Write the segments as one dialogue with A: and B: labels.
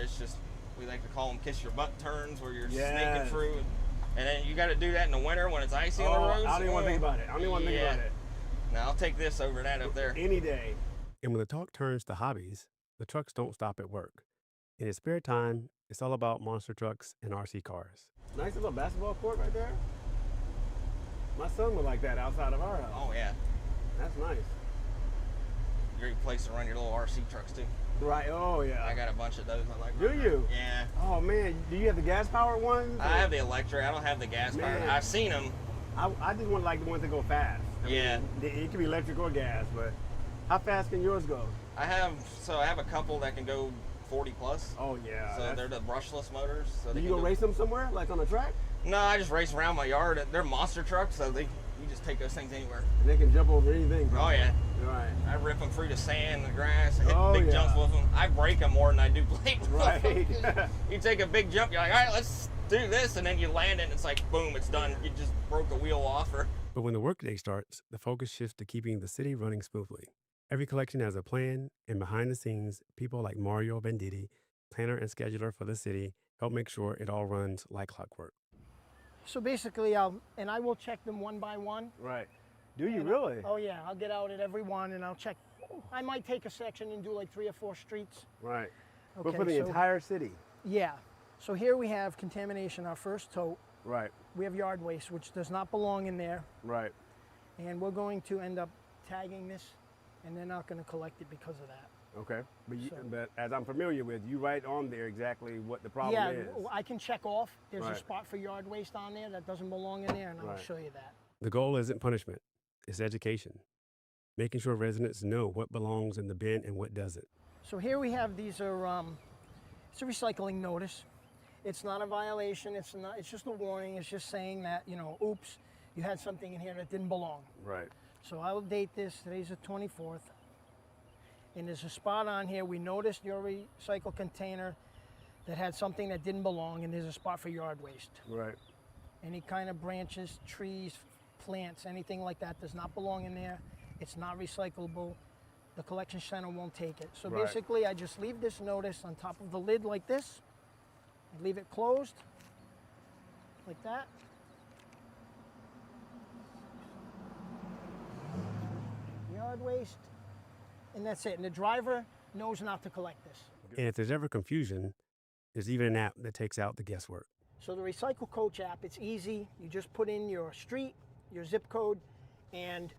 A: It's just we like to call them kiss your butt turns, where you're
B: Yes.
A: sneaking through, and then you got to do that in the winter when it's icy
B: Oh,
A: on the roads.
B: I don't even want to think about it. I don't even want to
A: Yeah.
B: think about it.
A: Now I'll take this over that up there.
B: Any day.
C: And when the talk turns to hobbies, the trucks don't stop at work. In his spare time, it's all about monster trucks and RC cars.
B: Nice little basketball court right there. My son would like that outside of our house.
A: Oh yeah,
B: That's nice.
A: great place to run your little RC trucks too.
B: Right. Oh
A: I
B: yeah.
A: got a bunch of those. I like.
B: Do
A: running
B: you?
A: around. Yeah.
B: Oh man, do you have the gas powered ones?
A: I have the electric. I don't have the gas powered.
B: Man.
A: I've seen them.
B: I, I just want like the ones that go fast. I
A: Yeah.
B: mean, it- it can be electric or gas, but how fast can yours go?
A: I have so I have a couple that can go 40 plus.
B: Oh yeah.
A: so
B: that's-
A: they're the brushless motors. So
B: do
A: they
B: you
A: can
B: go
A: go-
B: race them somewhere, like on a track?
A: No, I just race around my yard. They're monster trucks, so they you just take those things anywhere.
B: And they can jump over anything.
A: Oh yeah,
B: Right.
A: I rip them through the sand, the grass, hit
B: Oh,
A: big
B: yeah.
A: jumps with them. I break them more than I do plate. with 'em.
B: Right.
A: you take a big jump, you're like, all right, let's do this, and then you land it, and it's like, boom, it's done. You just broke a wheel off, or
C: But when the workday starts, the focus shifts to keeping the city running smoothly. Every collection has a plan, and behind the scenes, people like Mario Venditti, planner and scheduler for the city, help make sure it all runs like clockwork.
D: So basically, I'll, and I will check them one by one.
B: right. Do you really?
D: Oh yeah, I'll get out at every one and I'll check. I might take a section and do like three or four streets.
B: Right. but for
D: Okay,
B: the
D: so-
B: entire city.
D: Yeah. So here we have contamination, our first tote.
B: Right.
D: We have yard waste, which does not belong in there.
B: Right.
D: And we're going to end up tagging this and they're not going to collect it because of that.
B: Okay. But, you,
D: So-
B: but as I'm familiar with, you write on there exactly what the problem
D: yeah,
B: is.
D: I can check off. There's
B: Right.
D: a spot for yard waste on there that doesn't belong in there and I'll
B: Right.
D: show you that.
C: The goal isn't punishment, it's education, making sure residents know what belongs in the bin and what doesn't.
D: So here we have these are um, it's a recycling notice. It's not a violation. It's not. It's just a warning. It's just saying that you know, oops, you had something in here that didn't belong.
B: Right.
D: So I'll date this. Today's the 24th, and there's a spot on here. We noticed your recycle container that had something that didn't belong, and there's a spot for yard waste.
B: Right.
D: Any kind of branches, trees, plants, anything like that does not belong in there. It's not recyclable. The collection center won't take it. So
B: Right.
D: basically, I just leave this notice on top of the lid like this. I leave it closed like that. Yard waste, and that's it. And the driver knows not to collect this.
C: And if there's ever confusion, there's even an app that takes out the guesswork.
D: So the Recycle Coach app, it's easy. You just put in your street, your zip code, and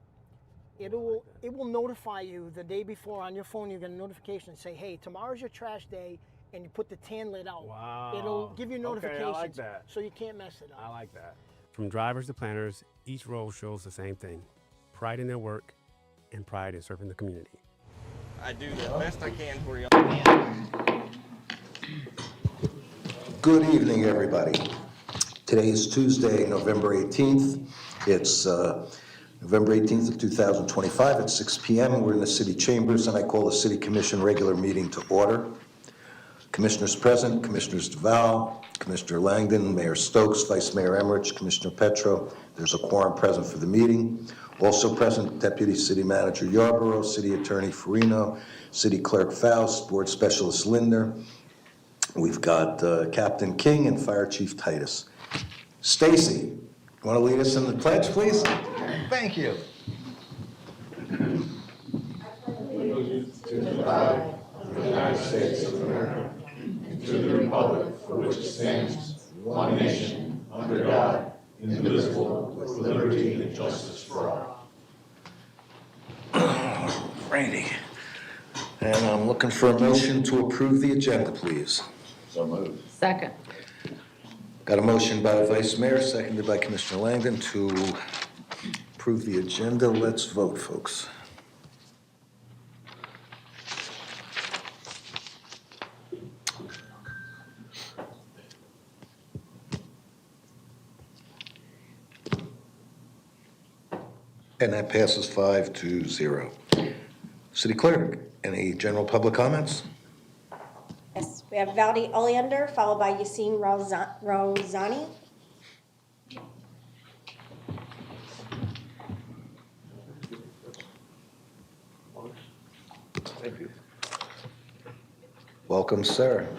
D: it will it will notify you the day before on your phone. You get a notification and say, "Hey, tomorrow's your trash day," and you put the tan lid out.
B: Wow.
D: It'll give you
B: Okay, I like
D: notifications,
B: that.
D: so you can't mess it
B: I
D: up.
B: like that.
C: From drivers to planners, each role shows the same thing pride in their work and pride in serving the community.
A: I do the
B: Oh.
A: best I can for you.
E: Good evening, everybody. Today is Tuesday, November 18th. It's uh, November 18th of 2025 at 6 PM. We're in the city chambers, and I call the city commission regular meeting to order. Commissioners present, Commissioners DeVal, Commissioner Langdon, Mayor Stokes, Vice Mayor Emmerich, Commissioner Petro. There's a quorum present for the meeting. Also present, Deputy City Manager Yarborough, City Attorney Farino, City Clerk Faust, Board Specialist Linder, We've got uh, Captain King and Fire Chief Titus. Stacy, you want to lead us in the pledge, please? Thank you. Randy, and I'm looking for a motion to approve the agenda, please.
F: Second.
E: Got a motion by Vice Mayor, seconded by Commissioner Langdon to approve the agenda. Let's vote, folks. And that passes five to zero. City Clerk, any general public comments?
G: Yes, we have Valdi Oleander, followed by Yassine Rozan- Rozani.
E: Welcome, sir.